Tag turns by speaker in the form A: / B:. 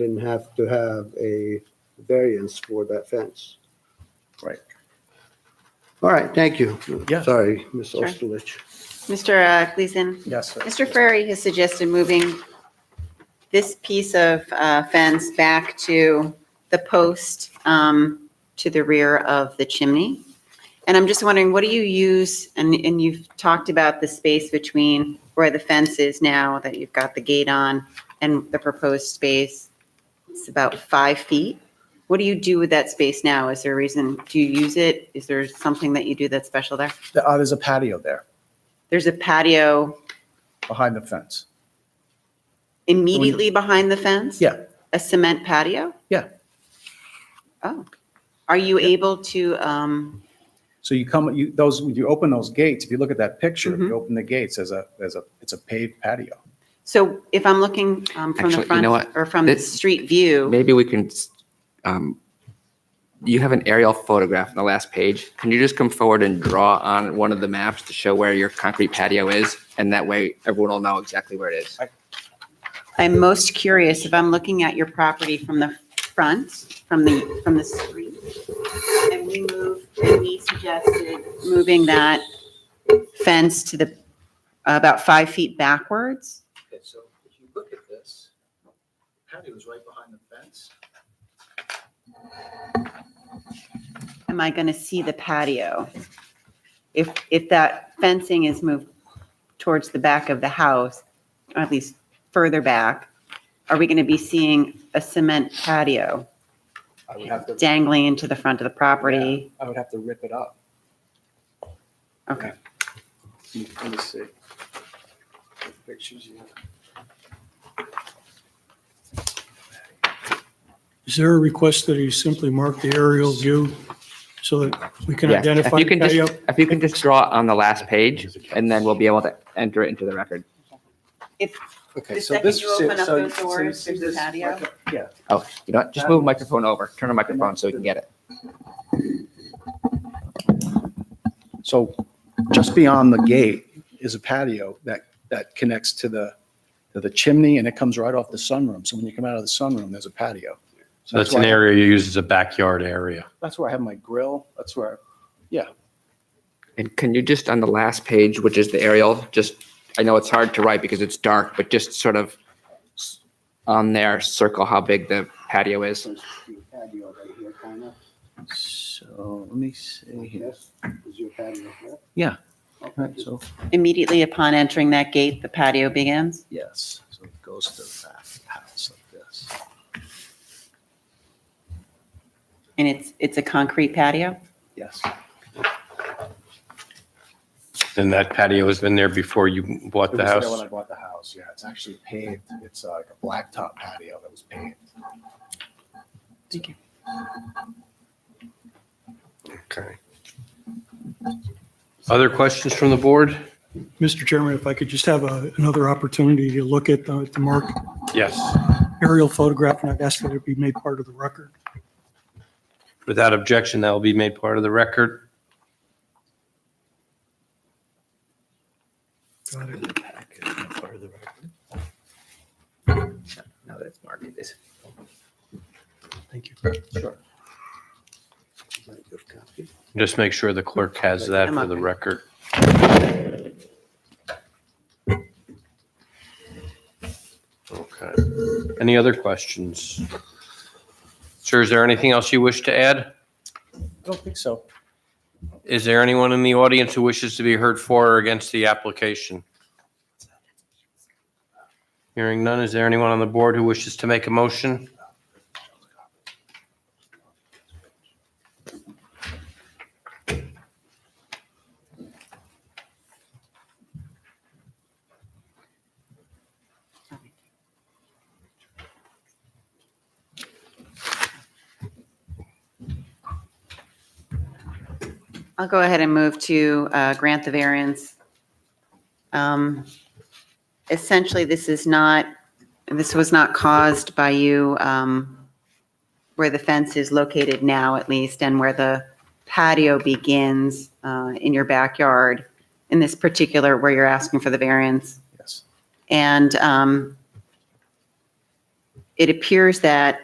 A: didn't have to have a variance for that fence.
B: Right.
A: All right, thank you.
B: Yeah.
A: Sorry, Ms.
C: Sure.
A: Osterlich.
C: Mr. uh, Gleason,
B: Yes.
C: Mr. Ferrari has suggested moving this piece of uh, fence back to the post um, to the rear of the chimney. And I'm just wondering, what do you use, and, and you've talked about the space between where the fence is now that you've got the gate on and the proposed space. It's about five feet. What do you do with that space now? Is there a reason, do you use it? Is there something that you do that's special there?
B: The- uh, There's a patio there
C: There's a patio
B: behind the fence.
C: Immediately behind the fence?
B: Yeah,
C: A cement patio?
B: yeah.
C: Oh. Are you able to, um,
B: So you come, you, those, you open those gates, if you look at that picture, you open the gates as a, as a, it's a paved patio.
C: so if I'm looking um, from the
D: Actually, you know
C: front
D: what?
C: or from the
D: This-
C: street view,
D: Maybe we can, s- um, you have an aerial photograph on the last page. Can you just come forward and draw on one of the maps to show where your concrete patio is? And that way everyone will know exactly where it is.
C: I'm most curious if I'm looking at your property from the front, from the, from the street. And we move, and we suggested moving that fence to the, about five feet backwards.
E: Okay, so if you look at this, patio is right behind the fence.
C: am I going to see the patio? If, if that fencing is moved towards the back of the house, or at least further back, are we going to be seeing a cement patio
B: I would have to,
C: dangling into the front of the property?
B: I would have to rip it up.
C: Okay.
B: Let me see. Pictures you have.
F: Is there a request that he simply mark the aerial view so that we can
D: Yeah,
F: identify?
D: If
F: uh,
D: you can
F: the
D: just,
F: patio?
D: if you can just draw on the last page and then we'll be able to enter it into the record.
B: Okay,
C: The
B: so
C: second
B: this.
C: you open up those doors, there's a patio.
B: Yeah,
D: Oh, you know what? Just move the microphone over. Turn the microphone so we can get it.
B: so just beyond the gate is a patio that, that connects to the, to the chimney and it comes right off the sunroom. So when you come out of the sunroom, there's a patio.
G: So that's
B: why
G: an
B: I-
G: area you use as a backyard area.
B: That's where I have my grill. That's where,
D: And can you just, on the last page, which is the aerial, just, I know it's hard to write because it's dark, but just sort of s- on there, circle how big the patio is.
A: patio right here, kind of.
B: so let me see here.
A: Yes, is your patio here?
B: Yeah.
A: Okay,
B: Right, so,
C: Immediately upon entering that gate, the patio begins?
B: yes, so it goes to the back of the house like this.
C: And it's, it's a concrete patio?
B: Yes.
G: And that patio has been there before you bought
B: It
G: the
B: was there when I
G: house.
B: bought the house, yeah. It's actually paved. It's uh, like a blacktop patio that was paved.
C: Thank you.
G: Okay. Other questions from the board?
F: Mr. Chairman, if I could just have a- another opportunity to look at the, to mark
G: Yes.
F: aerial photograph, and I'd ask that it be made part of the record.
G: Without objection, that will be made part of the record.
F: Got it.
D: Now that it's marked, it is.
F: Thank you.
A: Good copy.
G: Just make sure the clerk has that
C: I'm
G: for the
C: okay.
G: record. Okay. Any other questions? Sir, is there anything else you wish to add?
B: I don't think so.
G: Is there anyone in the audience who wishes to be heard for or against the application? Hearing none, is there anyone on the board who wishes to make a motion?
C: I'll go ahead and move to uh, grant the variance. Um, Essentially, this is not, this was not caused by you um, where the fence is located now at least and where the patio begins uh, in your backyard, in this particular where you're asking for the variance.
B: Yes.
C: And um, it appears that